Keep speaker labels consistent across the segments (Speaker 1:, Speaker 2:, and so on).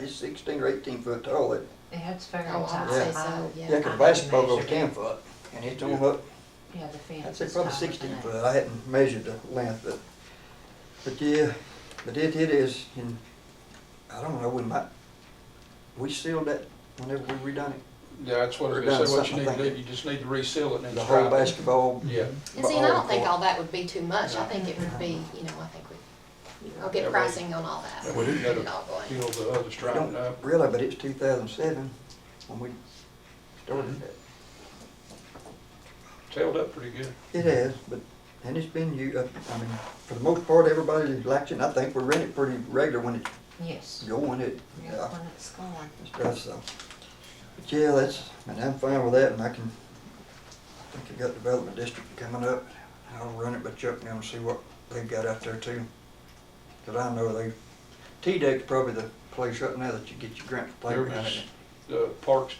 Speaker 1: it's sixteen or eighteen foot tall. It-
Speaker 2: Yeah, it's very
Speaker 3: Oh, I
Speaker 2: tight.
Speaker 3: would say
Speaker 2: I-
Speaker 3: so,
Speaker 1: Yeah,
Speaker 3: yeah.
Speaker 1: cause
Speaker 2: I
Speaker 1: basketball's over
Speaker 2: measured
Speaker 1: ten
Speaker 2: it.
Speaker 1: foot, and it's on up,
Speaker 2: Yeah, the fence.
Speaker 1: I'd say
Speaker 2: is
Speaker 1: probably
Speaker 2: taller than
Speaker 1: sixteen
Speaker 2: that.
Speaker 1: foot. I hadn't measured the length, but, but yeah, but it, it is, and I don't know, we might, we sealed that whenever we redone it.
Speaker 4: Yeah, that's what I
Speaker 1: We're
Speaker 4: was gonna
Speaker 1: done
Speaker 4: say, what you
Speaker 1: something, I
Speaker 4: need to do,
Speaker 1: think.
Speaker 4: you just need to reseal it and
Speaker 1: The
Speaker 4: then
Speaker 1: whole
Speaker 4: stripe it.
Speaker 1: basketball.
Speaker 4: Yeah.
Speaker 3: And see, and I don't think
Speaker 1: court.
Speaker 3: all that would be too much, I
Speaker 4: No.
Speaker 3: think it would be, you know, I think we, I'll
Speaker 4: Yeah,
Speaker 3: get
Speaker 4: right.
Speaker 3: pricing on all that.
Speaker 4: That way you
Speaker 3: Get
Speaker 4: gotta
Speaker 3: it all going.
Speaker 4: peel the other
Speaker 1: I
Speaker 4: striping
Speaker 1: don't
Speaker 4: up.
Speaker 1: really, but it's two thousand seven when we started
Speaker 4: Mm-hmm.
Speaker 1: that.
Speaker 4: It's held up pretty good.
Speaker 1: It has, but, and it's been, you, I mean, for the most part, everybody likes it, and I think we rent it pretty regular when it's
Speaker 2: Yes.
Speaker 1: going, it,
Speaker 2: Yeah,
Speaker 1: yeah,
Speaker 2: when it's gone.
Speaker 1: and stuff, so. But yeah, that's, and I'm fine with that, and I can, I think I got Development District coming up, I'll run it by Chuck now and see what they've got out there too. Cause I know they, T-Deck's probably the place right now that you get your grant for playground.
Speaker 4: There's- The parks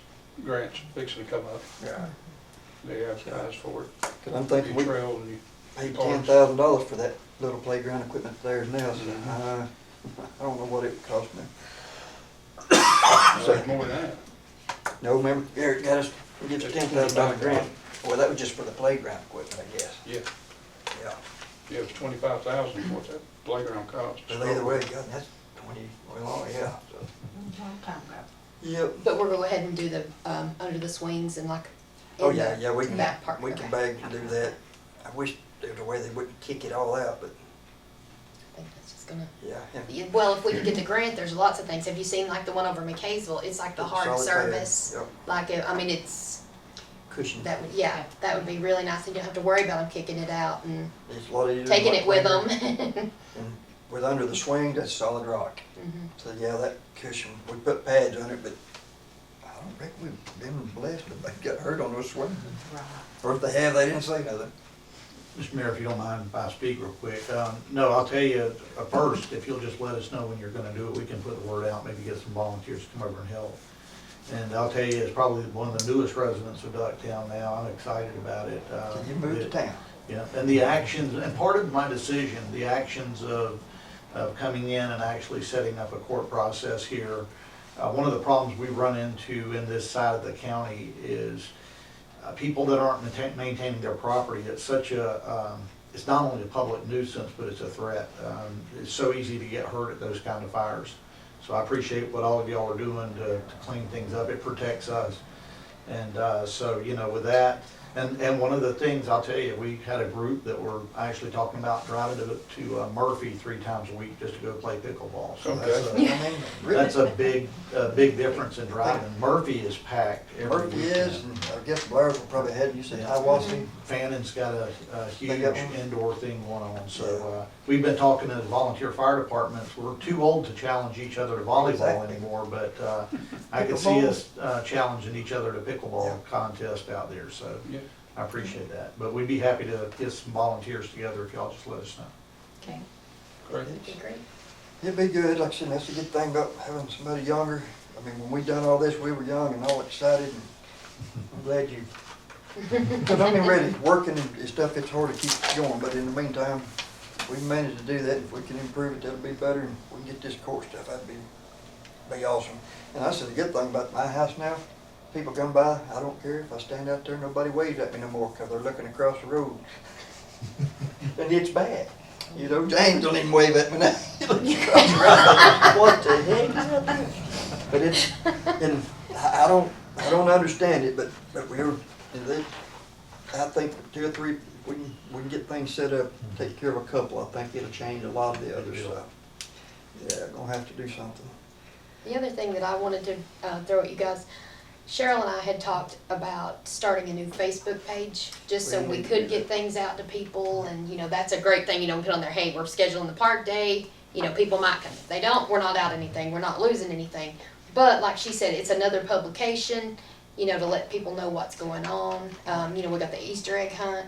Speaker 4: grants fixing to come up,
Speaker 1: Yeah,
Speaker 4: they advertise for it,
Speaker 1: cause I'm thinking
Speaker 4: you
Speaker 1: we
Speaker 4: trail and you,
Speaker 1: paid ten
Speaker 4: Parks.
Speaker 1: thousand dollars for that little playground equipment there now, so,
Speaker 4: Mhm.
Speaker 1: uh, I don't know what it would cost me.
Speaker 4: there's more than that.
Speaker 1: No, remember, Eric got us, we get a ten thousand dollar grant, well, that was just for the playground equipment, I guess,
Speaker 4: Yeah,
Speaker 1: yeah.
Speaker 4: yeah, it's twenty-five thousand, what that playground costs.
Speaker 1: But either way, God, that's twenty, well, yeah, so.
Speaker 2: Mm, Long time ago.
Speaker 1: Yep,
Speaker 3: But we'll go ahead and do the, um, under the swings and like.
Speaker 1: oh,
Speaker 3: in
Speaker 1: yeah,
Speaker 3: the
Speaker 1: yeah, we can,
Speaker 3: Back part.
Speaker 1: we can
Speaker 3: okay.
Speaker 1: beg and do that, I wish there was a way they wouldn't kick it all out, but,
Speaker 3: I think that's just gonna.
Speaker 1: yeah. and
Speaker 3: Yeah, Well, if we could get the grant, there's lots of things. Have you seen like the one over McKaysville? It's like the hard
Speaker 1: solid pad,
Speaker 3: service.
Speaker 1: Yep,
Speaker 3: Like, it- I mean, it's,
Speaker 1: cushion,
Speaker 3: that would, yeah, that would be really nice and you don't have to worry about them kicking it out and
Speaker 1: it's a lot easier. than
Speaker 3: taking
Speaker 1: what
Speaker 3: it with
Speaker 1: playground-
Speaker 3: them. Mm-hmm.
Speaker 1: and With under the swing, that's solid rock, so, yeah, that cushion, we put pads on it, but I don't think we've been blessed if they got hurt on those swings,
Speaker 2: Right.
Speaker 1: or if they have, they didn't say nothing.
Speaker 5: Mr. Mayor, if you don't mind, if I speak real quick, um, no, I'll tell you, uh, first, if you'll just let us know when you're gonna do it, we can put the word out, maybe get some volunteers to come over and help. And I'll tell you, it's probably one of the newest residents of Ducktown now, I'm excited about it. uh,
Speaker 1: So you moved to
Speaker 5: it-
Speaker 1: town.
Speaker 5: Yeah, and the actions, and part of my decision, the actions of, of coming in and actually setting up a court process here, uh, one of the problems we run into in this side of the county is uh, people that aren't maintain- maintaining their property, it's such a, um, it's not only a public nuisance, but it's a threat. Um, It's so easy to get hurt at those kind of fires. So I appreciate what all of y'all are doing to to clean things up. It protects us. And uh, so, you know, with that, and, and one of the things, I'll tell you, we had a group that were actually talking about driving to, to uh, Murphy three times a week just to go play pickleball. So that's
Speaker 4: Okay.
Speaker 5: a-
Speaker 1: I mean, really.
Speaker 5: That's a big, a big difference in driving. Murphy is packed every
Speaker 1: Murphy is,
Speaker 5: weekend.
Speaker 1: and I guess Blairsville probably had, you said Hiawassee.
Speaker 5: Fannon's got a, a
Speaker 1: They
Speaker 5: huge
Speaker 1: got one?
Speaker 5: indoor thing going on, so, uh, we've been talking to the volunteer fire departments. We're too old to challenge each other to volleyball
Speaker 1: Exactly.
Speaker 5: anymore, but, uh, I could see us, uh, challenging each other to
Speaker 1: Yeah.
Speaker 5: pickleball contest out there, so
Speaker 4: Yeah,
Speaker 5: I appreciate that. But we'd be happy to get some volunteers together if y'all just let us know.
Speaker 2: Okay.
Speaker 4: great.
Speaker 3: That'd be great.
Speaker 1: It'd be good, like I said, that's a good thing about having somebody younger. I mean, when we done all this, we were young and all excited, and I'm glad you. Because I mean, really, working and stuff, it's hard to keep going, but in the meantime, we managed to do that. If we can improve it, that'll be better, and we can get this court stuff, that'd be, be awesome. And that's the good thing about my house now. People come by, I don't care if I stand out there, nobody waves at me no more, because they're looking across the road. And it's bad. You know, James don't even wave at me now. He looks across the road. What the heck is that? thing? But it's, and I I don't, I don't understand it, but, but we're, and they- I think two or three, we can, we can get things set up, take care of a couple, I think it'll change a lot of the other stuff. Yeah, gonna have to do something.
Speaker 3: The other thing that I wanted to uh, throw at you guys, Cheryl and I had talked about starting a new Facebook page, just so
Speaker 1: We
Speaker 3: we
Speaker 1: need to do
Speaker 3: could get
Speaker 1: that.
Speaker 3: things out to people, and you know that's a great thing. You know, we put on there, hey, we're scheduling the park day. You know, people might come. If they don't, we're not out anything. We're not losing anything. But like she said, it's another publication. You know, to let people know what's going on. Um, you know, we got the Easter egg hunt.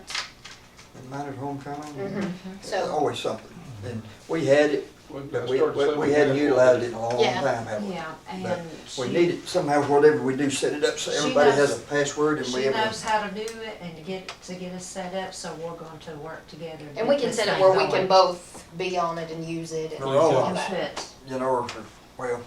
Speaker 1: And mine is homecoming.
Speaker 3: Mhm.
Speaker 1: There's
Speaker 3: So
Speaker 1: Always something. And we had it,
Speaker 4: We've got
Speaker 1: but
Speaker 4: to
Speaker 1: we,
Speaker 4: start
Speaker 1: we
Speaker 4: saving
Speaker 1: we hadn't
Speaker 4: that.
Speaker 1: utilized it in a long
Speaker 3: Yeah.
Speaker 1: time, have we?
Speaker 2: Yeah,
Speaker 1: But
Speaker 2: and
Speaker 1: We
Speaker 2: she-
Speaker 1: need it somehow, whatever we do, set it up so
Speaker 2: She
Speaker 1: everybody has
Speaker 2: knows-
Speaker 1: a password and we
Speaker 2: She
Speaker 1: have.
Speaker 2: knows how to do it and to get, to get us set up, so we're going to work together. to
Speaker 3: and we
Speaker 2: get
Speaker 3: can
Speaker 2: this
Speaker 3: set it
Speaker 2: thing
Speaker 3: where we can
Speaker 2: going.
Speaker 3: both be on it and use it and
Speaker 1: We're all
Speaker 3: all
Speaker 1: on
Speaker 3: that.
Speaker 2: But
Speaker 1: You know, or, for- well,